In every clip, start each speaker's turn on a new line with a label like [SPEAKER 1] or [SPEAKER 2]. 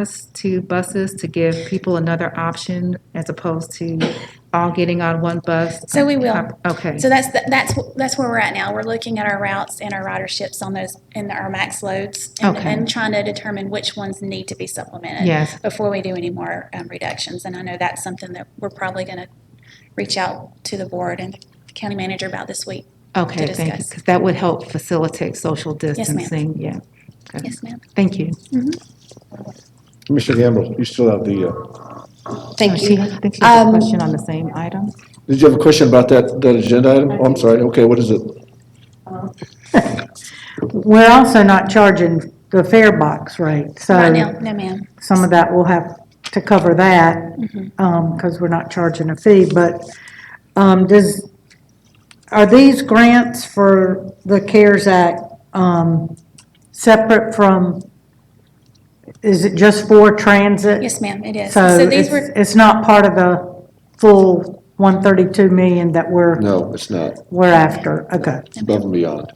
[SPEAKER 1] us to buses to give people another option as opposed to all getting on one bus?
[SPEAKER 2] So we will.
[SPEAKER 1] Okay,
[SPEAKER 2] So that's, the- that's, wh- that's where we're at now. We're looking at our routes and our riderships on those, and our max loads. and-
[SPEAKER 1] Okay.
[SPEAKER 2] And trying to determine which ones need to be supplemented.
[SPEAKER 1] yes,
[SPEAKER 2] Before we do any more um, reductions. And I know that's something that we're probably going to reach out to the board and the county manager about this week.
[SPEAKER 1] okay, thank you,
[SPEAKER 2] discuss.
[SPEAKER 1] because that would help facilitate social distancing, yeah. Okay.
[SPEAKER 2] Yes, ma'am.
[SPEAKER 1] Thank you.
[SPEAKER 3] Commissioner Gamble, you still have the, uh,
[SPEAKER 4] Thank
[SPEAKER 1] She
[SPEAKER 4] you.
[SPEAKER 1] has- I think she has a
[SPEAKER 4] Um,
[SPEAKER 1] question on the same item.
[SPEAKER 3] did you have a question about that, that agenda item? Oh, I'm sorry, okay, what is it?
[SPEAKER 5] We're also not charging the fare box rate,
[SPEAKER 2] Right now,
[SPEAKER 5] so
[SPEAKER 2] no, ma'am.
[SPEAKER 5] some of that will have to cover that,
[SPEAKER 2] Mm-hmm.
[SPEAKER 5] because we're not charging a fee, but um, does, are these grants for the CARES Act um, separate from, is it just for transit?
[SPEAKER 2] Yes, ma'am, it is.
[SPEAKER 5] So
[SPEAKER 2] So these
[SPEAKER 5] it's,
[SPEAKER 2] were,
[SPEAKER 5] it's not part of the full 132 million that we're,
[SPEAKER 3] No, it's not,
[SPEAKER 5] we're after, okay,
[SPEAKER 3] it's above and beyond.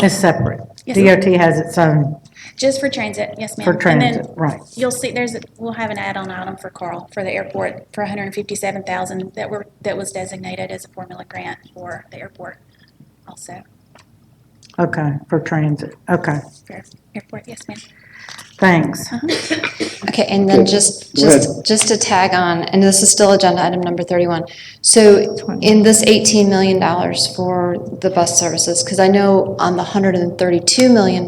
[SPEAKER 5] it's separate.
[SPEAKER 2] Yes,
[SPEAKER 5] DOT has its own
[SPEAKER 2] just for transit, yes, ma'am.
[SPEAKER 5] for
[SPEAKER 2] And then
[SPEAKER 5] transit, right.
[SPEAKER 2] You'll see, there's, a- we'll have an add-on item for Carl, for the airport, for 157,000 that were, that was designated as a formula grant for the airport also.
[SPEAKER 5] Okay, for transit, okay,
[SPEAKER 2] For airport, yes, ma'am. Uh-huh.
[SPEAKER 5] thanks.
[SPEAKER 4] Okay, and then
[SPEAKER 3] Okay,
[SPEAKER 4] just,
[SPEAKER 3] go ahead.
[SPEAKER 4] just, just to tag on, and this is still agenda item number 31. So in this $18 million for the bus services, because I know on the $132 million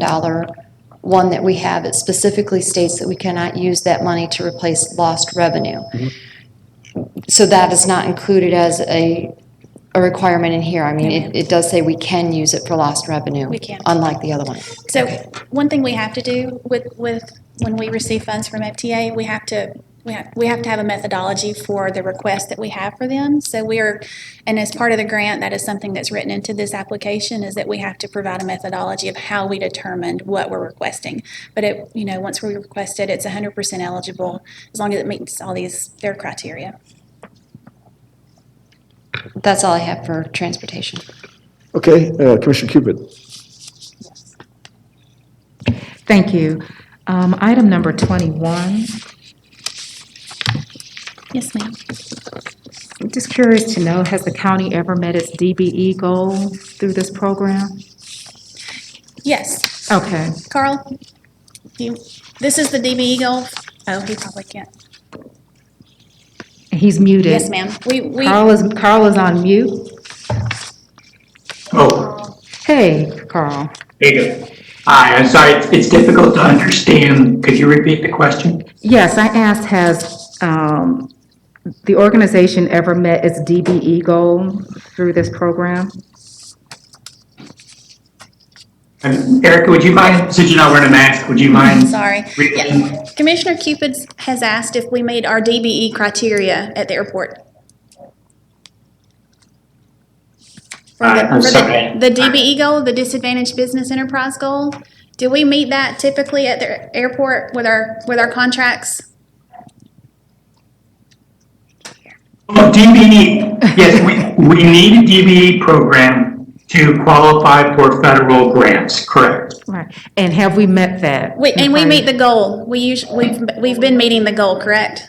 [SPEAKER 4] one that we have, it specifically states that we cannot use that money to replace lost revenue.
[SPEAKER 3] Mm-hmm.
[SPEAKER 4] So that is not included as a, a requirement in here. I mean, it, it does say we can use it for lost revenue.
[SPEAKER 2] We can.
[SPEAKER 4] Unlike the other one.
[SPEAKER 2] So one thing we have to do with, with, when we receive funds from FTA, we have to, we have, we have to have a methodology for the request that we have for them. So we are, and as part of the grant, that is something that's written into this application, is that we have to provide a methodology of how we determined what we're requesting. But it, you know, once we request it, it's hundred percent eligible, as long as it meets all these, their criteria.
[SPEAKER 4] That's all I have for transportation.
[SPEAKER 3] Okay, uh, Commissioner Cupid,
[SPEAKER 1] Thank you. Um, Item number 21,
[SPEAKER 2] Yes, ma'am.
[SPEAKER 1] I'm just curious to know, has the county ever met its DBE goal through this program?
[SPEAKER 2] Yes,
[SPEAKER 1] Okay,
[SPEAKER 2] Carl? Do you, this is the DBE goal? Oh, he probably can't.
[SPEAKER 1] he's muted.
[SPEAKER 2] Yes, ma'am. We, we.
[SPEAKER 1] Carl is, Carl is on mute.
[SPEAKER 6] Oh,
[SPEAKER 1] Hey, Carl.
[SPEAKER 6] there you go. Hi, I'm sorry, it's- it's difficult to understand. Could you repeat the question?
[SPEAKER 1] Yes, I asked, has um, the organization ever met its DBE goal through this program?
[SPEAKER 6] Um, Erica, would you mind, since you're not wearing a mask, would you mind?
[SPEAKER 2] Sorry.
[SPEAKER 6] repeating?
[SPEAKER 2] Yeah. Commissioner Cupid has asked if we made our DBE criteria at the airport. For the-
[SPEAKER 6] I- I'm
[SPEAKER 2] for the-
[SPEAKER 6] sorry.
[SPEAKER 2] The DBE goal, the disadvantaged business enterprise goal, do we meet that typically at the airport with our, with our contracts?
[SPEAKER 6] Oh, DBE, yes, we, we need a DBE program to qualify for federal grants, correct?
[SPEAKER 1] Right, and have we met that?
[SPEAKER 2] We- And we meet the goal. We usually, we've, we've been meeting the goal, correct?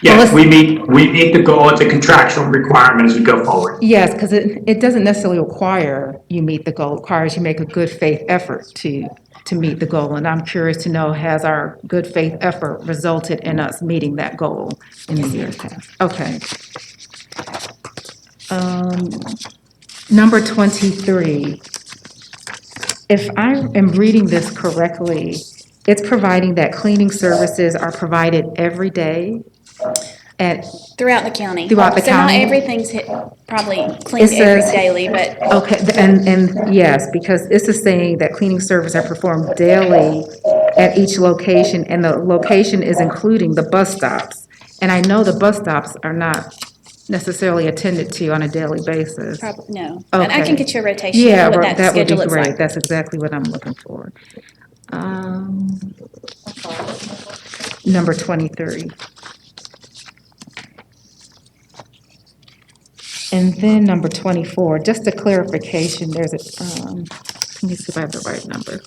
[SPEAKER 6] Yes, we meet, we meet the goal, it's a contractual requirement as we go forward.
[SPEAKER 1] Yes, because it, it doesn't necessarily require you meet the goal, it requires you make a good faith effort to, to meet the goal. And I'm curious to know, has our good faith effort resulted in us meeting that goal in the years past? Okay. Um, Number 23. If I am reading this correctly, it's providing that cleaning services are provided every day at,
[SPEAKER 2] Throughout the county.
[SPEAKER 1] Throughout the
[SPEAKER 2] So
[SPEAKER 1] county.
[SPEAKER 2] not everything's hit, probably cleaned
[SPEAKER 1] It
[SPEAKER 2] every
[SPEAKER 1] says-
[SPEAKER 2] daily, but
[SPEAKER 1] Okay, th- and, and yes, because this is saying that cleaning services are performed daily at each location, and the location is including the bus stops. And I know the bus stops are not necessarily attended to on a daily basis.
[SPEAKER 2] prob, no. But I
[SPEAKER 1] Okay.
[SPEAKER 2] can get you a rotation
[SPEAKER 1] Yeah,
[SPEAKER 2] of
[SPEAKER 1] ro-
[SPEAKER 2] what that
[SPEAKER 1] that would be
[SPEAKER 2] schedule looks
[SPEAKER 1] great,
[SPEAKER 2] like.
[SPEAKER 1] that's exactly what I'm looking for. Um, Number twenty-three. And then number twenty-four, just a clarification, there's a, um, let me see if I have the right number.